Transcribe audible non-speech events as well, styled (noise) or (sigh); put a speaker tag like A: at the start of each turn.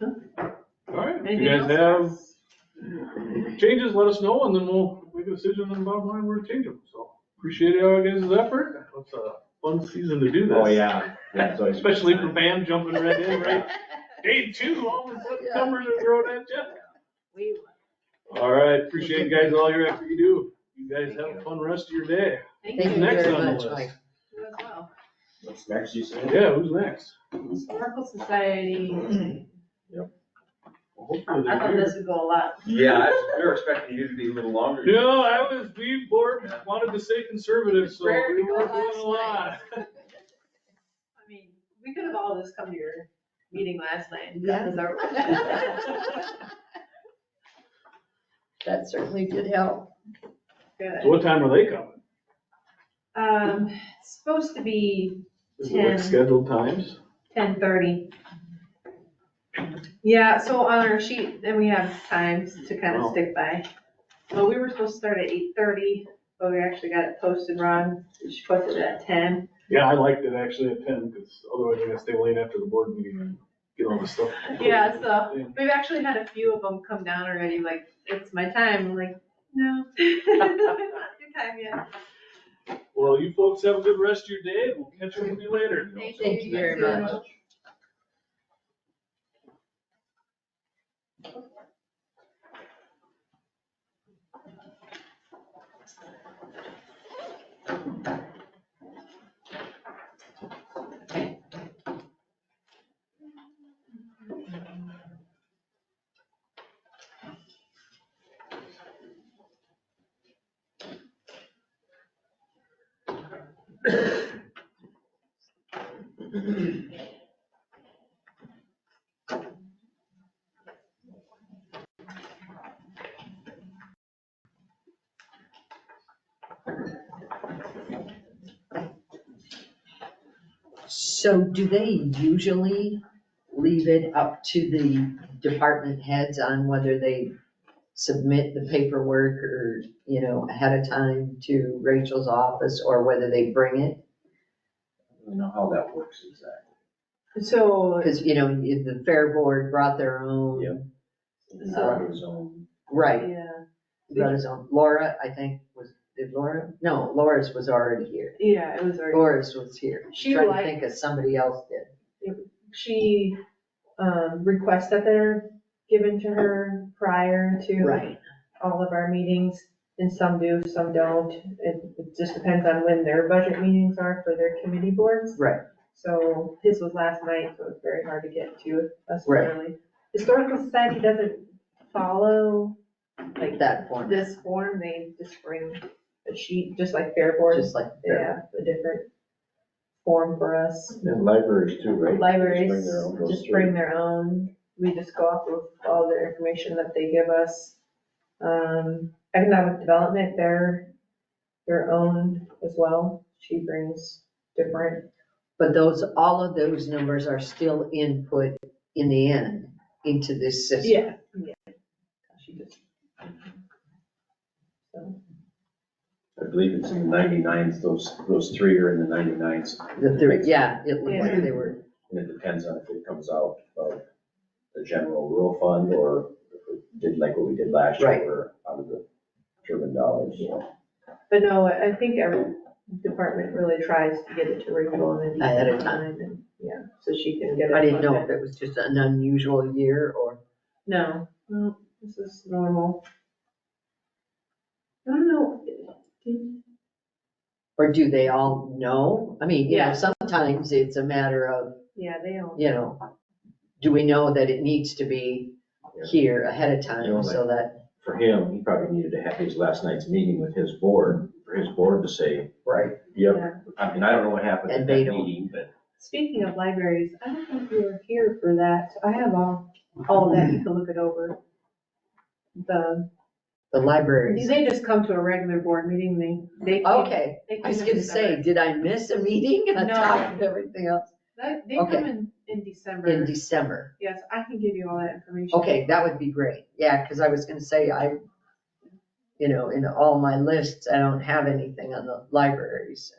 A: All right, if
B: Anything
A: you guys
B: else?
A: have changes, let us know, and then we'll make a decision on bottom line, we're changing, so. Appreciate all you guys' effort, it's a fun season to do this.
C: Oh, yeah. Yeah, so it's-
A: Especially for Bam jumping right in, right? Day two, all of a sudden numbers are thrown at you.
B: We will.
A: All right, appreciate you guys, all your effort you do. You guys have a fun rest of your day.
B: Thank
D: Thank
A: Who's
D: you
A: next
D: very
A: on the
D: much,
A: list?
D: Mike.
B: you as well.
C: What's next, you said?
A: Yeah, who's next?
B: Historical Society,
A: Hopefully
B: I
A: they're
B: thought
A: here.
B: this would go a lot.
C: Yeah, I was- we were expecting you to be a little longer.
A: No, I was, we were, wanted to stay conservative, so
B: Prayer
A: we
B: to
A: were
B: God
A: doing a lot.
B: last
D: (laughs)
B: night. I mean, we could have all just come to your meeting last night and got this over
D: (laughs)
B: with.
D: That certainly did help.
A: So
B: Good.
A: what time are they coming?
B: Um, it's supposed to be
A: Is it
B: Ten.
A: like scheduled times?
B: ten thirty. Yeah, so on our sheet, then we have times to kind
A: Wow.
B: of stick by. Well, we were supposed to start at eight thirty, but we actually got it posted wrong. She posted it at ten.
A: Yeah, I liked it actually at ten, because otherwise I gotta stay late after the board meeting and get all this stuff.
B: (laughs) Yeah, so We've actually had a few of them come down already, like, it's my time, I'm like, no. (laughs) it's not Your time yet.
A: Well, you folks have a good rest of your day, and we'll catch up with you later.
D: Thank you very much. So do they usually leave it up to the department heads on whether they submit the paperwork or, you know, ahead of time to Rachel's office or whether they bring it?
C: I don't know how that works exactly.
B: So,
D: Because, you know, if the fair board brought their own.
C: Yeah.
B: So-
C: His own-
D: Right,
B: yeah,
D: brought his own. Laura, I think, was, did Laura? No, Laura's was already here.
B: yeah, it was already,
D: Laura's was here.
B: She
D: Trying to
B: liked-
D: think of somebody else did.
B: she, um, requests that they're given to her prior to
D: Right.
B: all of our meetings. And some do, some don't. It, it just depends on when their budget meetings are for their committee boards.
D: Right.
B: So his was last night, so it's very hard to get to us
D: Right.
B: early. Historical Society doesn't follow like
D: That form,
B: this form, they just bring a sheet, just like Fair Board,
D: just like
B: they have a different form for us.
C: And libraries too, right?
B: Libraries
C: their own, those
B: just
C: three.
B: bring their own, we just go off of all their information that they give us. Um, economic development, they're their own as well, she brings different,
D: But those, all of those numbers are still input in the end into this system.
B: yeah, yeah. She just. So,
C: I believe it's
D: Mm-hmm.
C: in the ninety-nines, those, those three are in the ninety-nines,
D: The three, yeah, it looked like they were,
C: and it depends on if it comes out of the general rural fund or if it did like what we did last
D: Right.
C: year, where out of the German dollars, so.
B: But no, I think every department really tries to get it to Rachel and.
D: Ahead of
B: time. Yeah, so she can get it.
D: I didn't know if
B: funded.
D: it was just an unusual year or,
B: No, no, this is normal. I don't know.
D: or do they all know? I mean, you know,
B: Yeah.
D: sometimes it's a matter of,
B: Yeah, they all.
D: you know, do we know that it needs to be here ahead of
C: You know,
D: time so that,
C: for him, he probably needed to have his last night's meeting with his board, for his board to say. Right. Yep,
B: Yeah.
C: I mean, I don't know what happened at
D: And they
C: that
D: don't.
C: meeting, but
B: Speaking of libraries, I don't think we were here for that. I have all, all that. You can look it over. The,
D: the libraries?
B: they just come to a regular board meeting. They, they. can't-
D: Okay,
B: they can't
D: I was gonna say, did I miss a meeting on
B: No.
D: top of everything else?
B: They they
D: Okay.
B: come in, in
D: In
B: December.
D: December.
B: Yes, I can give you all that information.
D: Okay, that would be great, yeah, because I was gonna say, I, you know, in all my
B: Mm-hmm.
D: lists, I don't have anything on the libraries.